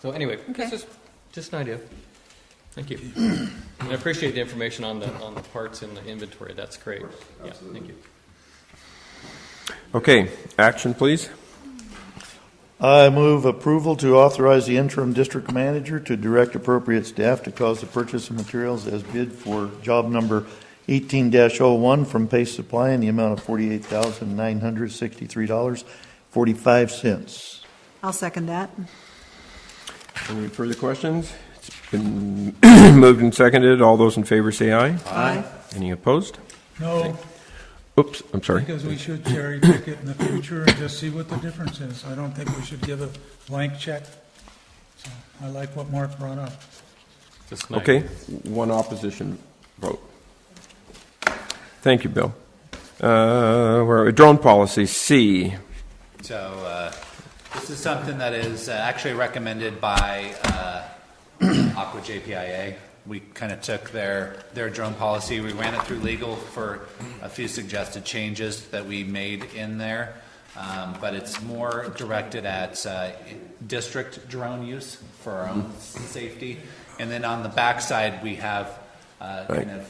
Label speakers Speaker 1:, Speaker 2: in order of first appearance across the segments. Speaker 1: So anyway, this
Speaker 2: Okay.
Speaker 1: is just an idea. Thank you. And I appreciate the information on the, on the parts and the inventory. That's great. Yeah, thank you.
Speaker 3: Okay, action, please.
Speaker 4: I move approval to authorize the interim district manager to direct appropriate staff to cause the purchase of materials as bid for job number 18-01 from Pace Supply in the amount of $48,963.45.
Speaker 2: I'll second that.
Speaker 3: Any further questions? It's been moved and seconded. All those in favor say aye.
Speaker 2: Aye.
Speaker 3: Any opposed?
Speaker 5: No,
Speaker 3: Oops, I'm sorry.
Speaker 5: because we should cherry pick it in the future and just see what the difference is. I don't think we should give a blank check. So I like what Mark brought up.
Speaker 1: Just nice.
Speaker 3: Okay, one opposition vote. Thank you, Bill. Uh, where- Drone policy, C.
Speaker 6: So uh, this is something that is uh, actually recommended by uh, Aqua JPIA. We kind of took their, their drone policy, we ran it through legal for a few suggested changes that we made in there. Um, But it's more directed at uh, district drone use for our own safety. And then on the backside, we have uh,
Speaker 3: Right.
Speaker 6: kind of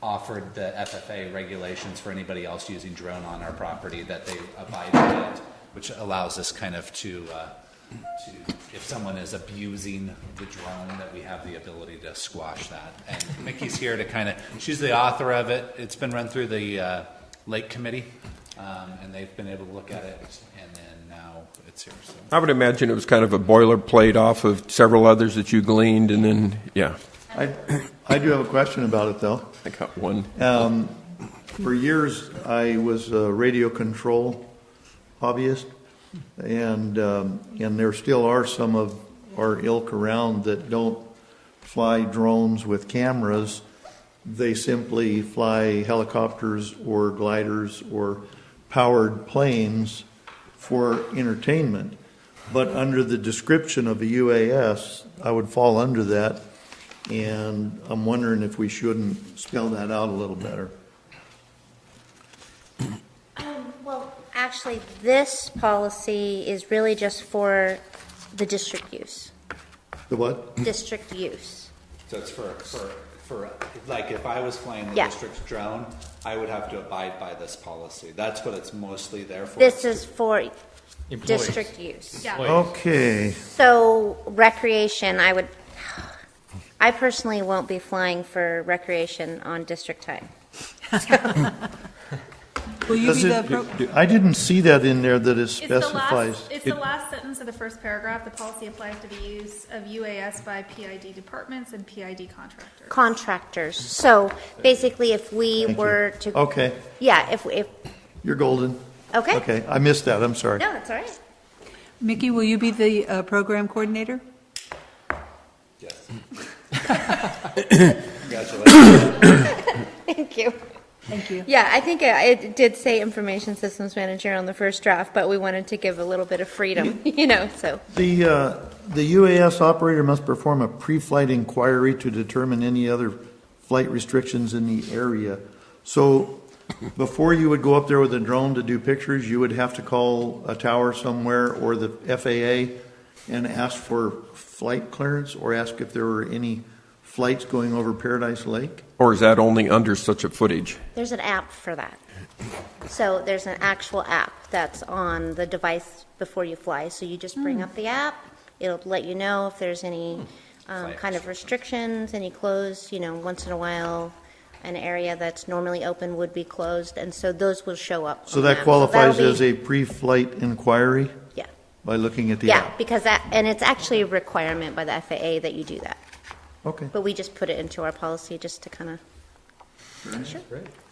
Speaker 6: offered the FFA regulations for anybody else using drone on our property that they abide by it, which allows us kind of to, uh, to, if someone is abusing the drone, that we have the ability to squash that. And Mickey's here to kind of, she's the author of it. It's been run through the uh, Lake Committee, um, and they've been able to look at it, and then now it's here, so.
Speaker 3: I would imagine it was kind of a boilerplate off of several others that you gleaned, and then, yeah,
Speaker 4: I I do have a question about it, though.
Speaker 3: I got one.
Speaker 4: Um, For years, I was a radio control hobbyist, and, um, and there still are some of our ilk around that don't fly drones with cameras. They simply fly helicopters or gliders or powered planes for entertainment. But under the description of a UAS, I would fall under that, and I'm wondering if we shouldn't spell that out a little better.
Speaker 7: Well, actually, this policy is really just for the district use,
Speaker 4: The what?
Speaker 7: district use.
Speaker 6: So it's for, for, for, like, if I was flying the
Speaker 7: Yeah.
Speaker 6: district's drone, I would have to abide by this policy. That's what it's mostly there for.
Speaker 7: This is for
Speaker 1: Employees.
Speaker 7: district use.
Speaker 4: Oh.
Speaker 1: Employees.
Speaker 4: Okay,
Speaker 7: So recreation, I would, I personally won't be flying for recreation on district time.
Speaker 2: Will you be
Speaker 4: Does
Speaker 2: the,
Speaker 4: it-
Speaker 2: appro-
Speaker 4: I didn't see that in there that it
Speaker 8: It's the
Speaker 4: specifies.
Speaker 8: last, it's the last sentence of the first paragraph. The policy applies to the use of UAS by PID departments and PID contractors.
Speaker 7: Contractors, so basically if we
Speaker 4: Thank you.
Speaker 7: were to.
Speaker 4: Okay,
Speaker 7: Yeah, if, if,
Speaker 4: you're golden.
Speaker 7: okay.
Speaker 4: Okay, I missed that, I'm sorry.
Speaker 7: No, that's all right.
Speaker 2: Mickey, will you be the uh, program coordinator?
Speaker 6: Yes. Congratulations.
Speaker 7: Thank you.
Speaker 2: Thank you.
Speaker 7: Yeah, I think uh, it did say information systems manager on the first draft, but we wanted to give a little bit of freedom, you know, so.
Speaker 4: The, uh, the UAS operator must perform a pre-flight inquiry to determine any other flight restrictions in the area. So before you would go up there with a drone to do pictures, you would have to call a tower somewhere or the FAA and ask for flight clearance or ask if there were any flights going over Paradise Lake?
Speaker 3: Or is that only under such a footage?
Speaker 7: There's an app for that. So there's an actual app that's on the device before you fly. So you just bring up the app, it'll let you know if there's any
Speaker 4: Hmm.
Speaker 7: um,
Speaker 6: Flight
Speaker 7: kind of restrictions, any closed, you know, once in a while, an area that's normally open would be closed, and so those will show up.
Speaker 4: So
Speaker 7: on
Speaker 4: that
Speaker 7: the app.
Speaker 4: qualifies
Speaker 7: that'll
Speaker 4: as
Speaker 7: be-
Speaker 4: a pre-flight inquiry
Speaker 7: Yeah.
Speaker 4: by looking at the
Speaker 7: Yeah,
Speaker 4: app?
Speaker 7: because that, and it's actually a requirement by the FAA that you do that.
Speaker 4: Okay.
Speaker 7: But we just put it into our policy just to kind of,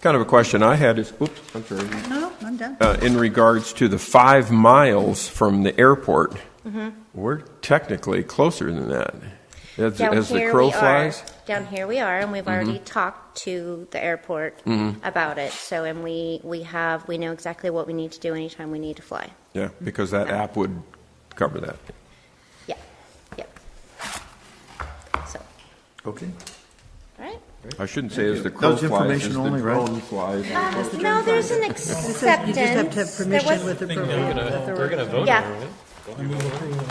Speaker 3: Kind of a question I had is, oops, I'm sorry.
Speaker 2: No, I'm done.
Speaker 3: uh, in regards to the five miles from the airport,
Speaker 7: Mm-hmm.
Speaker 3: we're technically closer than that. As,
Speaker 7: down
Speaker 3: as the
Speaker 7: here
Speaker 3: crow
Speaker 7: we
Speaker 3: flies, Mm-hmm.
Speaker 7: are. Down here we are, and we've already talked to the airport about it. So, and we, we have, we know exactly what we need to do anytime we need to fly.
Speaker 3: yeah, because that app would cover that.
Speaker 7: Yeah, yep. So,
Speaker 4: Okay.
Speaker 7: all right.
Speaker 3: I shouldn't say as the
Speaker 4: That
Speaker 3: crow
Speaker 4: was
Speaker 3: flies,
Speaker 4: information
Speaker 3: as the
Speaker 4: only, right?
Speaker 3: drone flies.
Speaker 7: Um, No, there's an
Speaker 2: It says you just have to have
Speaker 7: acceptance. There
Speaker 2: permission
Speaker 7: was-
Speaker 2: with the
Speaker 1: I think they're
Speaker 2: program
Speaker 1: gonna, they're
Speaker 2: authority.
Speaker 1: gonna vote on
Speaker 7: Yeah.
Speaker 1: it, right?
Speaker 5: I move approval.